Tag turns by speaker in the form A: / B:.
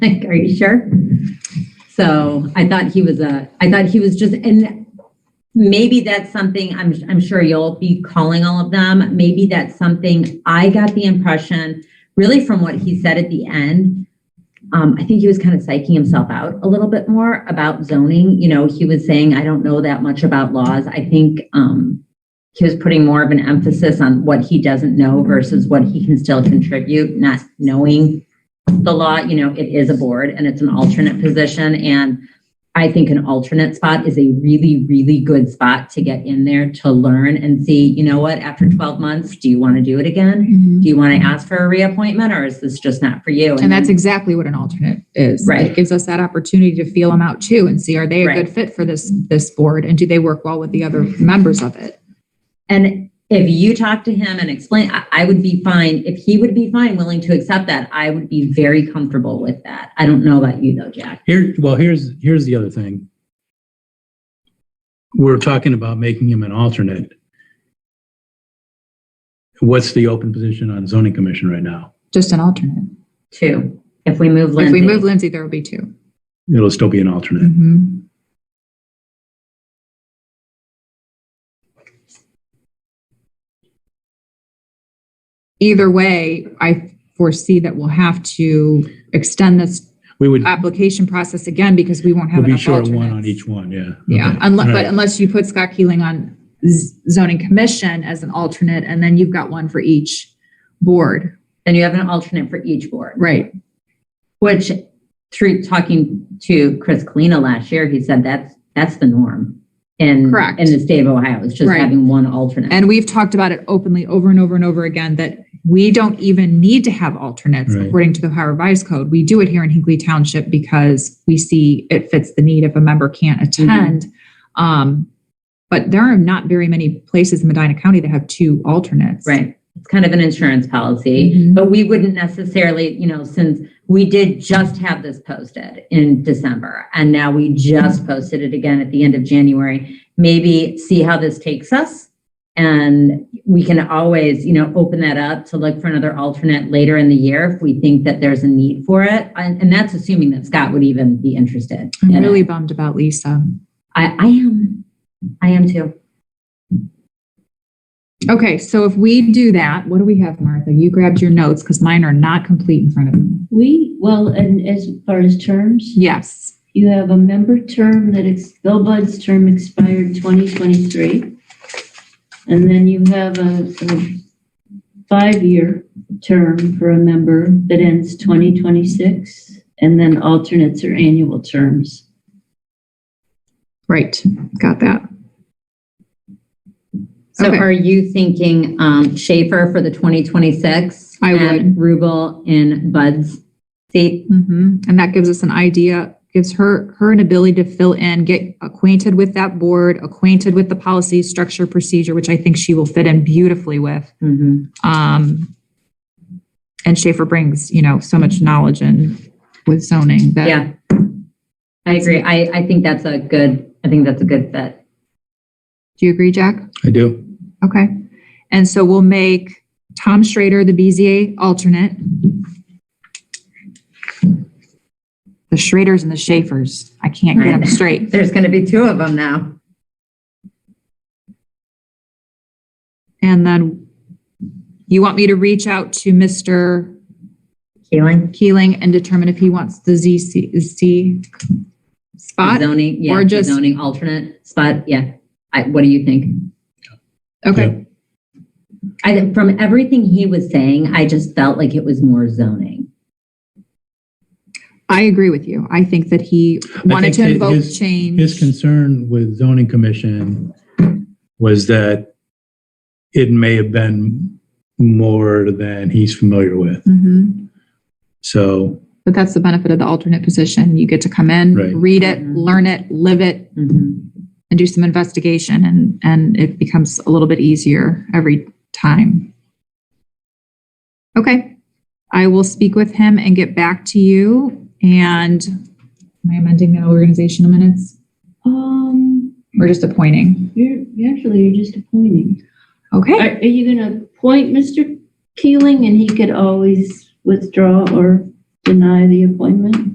A: Like, are you sure? So I thought he was a, I thought he was just, and maybe that's something, I'm, I'm sure you'll be calling all of them. Maybe that's something, I got the impression, really from what he said at the end. Um, I think he was kind of psyching himself out a little bit more about zoning. You know, he was saying, I don't know that much about laws. I think, um, he was putting more of an emphasis on what he doesn't know versus what he can still contribute, not knowing the law, you know, it is a board and it's an alternate position. And I think an alternate spot is a really, really good spot to get in there to learn and see, you know what, after 12 months, do you want to do it again? Do you want to ask for a reappointment or is this just not for you?
B: Mm-hmm. And that's
A: then-
B: exactly what an alternate is.
A: Mm-hmm. Right.
B: It gives us that opportunity to feel them out too and see, are they a
A: Right.
B: good fit for this, this board? And do they work well with the other members of it?
A: And if you talk to him and explain, I, I would be fine. If he would be fine, willing to accept that, I would be very comfortable with that. I don't know about you though, Jack.
C: Here, well, here's, here's the other thing. We're talking about making him an alternate. What's the open position on zoning commission right now?
B: Just an alternate.
A: Two, if we move
B: If
A: Lindsay.
B: we move Lindsay, there will be 2
C: It'll still be an alternate.
B: Mhm. Either way, I foresee that we'll have to extend this
C: We would,
B: application process again because we won't have
C: we'll be
B: enough
C: short of
B: alternates.
C: one on each one, yeah.
B: Yeah,
C: Okay.
B: unless,
C: All
B: but
C: right.
B: unless you put Scott Keeling on z- zoning commission as an alternate, and then you've got one for each board.
A: Then you have an alternate for each board.
B: Right.
A: Which, through talking to Chris Kalina last year, he said that's, that's the norm in,
B: Correct.
A: in the state of Ohio, it's just
B: Right.
A: having one alternate.
B: And we've talked about it openly over and over and over again, that we don't even need to have alternates
C: Right.
B: according to the Ohio Revised Code. We do it here in Hinkley Township because we see it fits the need if a member can't
C: Mm-hmm.
B: attend. Um, but there are not very many places in Medina County that have two alternates.
A: Right. It's kind of an insurance policy,
B: Mhm.
A: but we wouldn't necessarily, you know, since we did just have this posted in December and now we just posted it again at the end of January, maybe see how this takes us. And we can always, you know, open that up to look for another alternate later in the year if we think that there's a need for it. And, and that's assuming that Scott would even be interested.
B: I'm
A: in it.
B: really bummed about Lisa.
A: I, I am, I am too.
B: Okay, so if we do that, what do we have, Martha? You grabbed your notes because mine are not complete in front of me.
D: We, well, and as far as terms,
B: Yes.
D: you have a member term that, ex- Bill Bud's term expired 2023. And then you have a a five-year term for a member that ends 2026. And then alternates are annual terms.
B: Right, got that.
A: So
B: Okay.
A: are you thinking um, Schaefer for the 2026?
B: I would.
A: And Rubel in Bud's seat?
B: hmm And that gives us an idea, gives her, her an ability to fill in, get acquainted with that board, acquainted with the policy, structure, procedure, which I think she will fit in beautifully with.
A: Mhm.
B: Um, and Schaefer brings, you know, so much knowledge and with zoning that.
A: Yeah. I agree. I, I think that's a good, I think that's a good fit.
B: Do you agree, Jack?
C: I do.
B: Okay. And so we'll make Tom Schrader the BZA alternate. The Schraders and the Schaefers. I can't get them straight.
A: There's going to be two of them now.
B: And then you want me to reach out to Mr.
A: Keeling?
B: Keeling and determine if he wants the ZC Z spot?
A: Zoning, yeah,
B: or
A: the
B: just-
A: zoning alternate spot, yeah. I, what do you think?
B: Okay,
A: I, think from everything he was saying, I just felt like it was more zoning.
B: I agree with you. I think that he wanted
C: think
B: to
C: that
B: invoke
C: his- His
B: change.
C: concern with zoning commission was that it may have been more than he's familiar with.
B: Mhm.
C: So
B: But that's the benefit of the alternate position. You get to come in,
C: Right.
B: read it,
A: Mhm.
B: learn it, live it,
A: Mhm.
B: and do some investigation and and it becomes a little bit easier every time. Okay. I will speak with him and get back to you and am I amending the organizational minutes
D: Um,
B: or just appointing?
D: you're, actually, you're just appointing. Are,
B: Okay.
D: are you going to appoint Mr. Keeling and he could always withdraw or deny the appointment?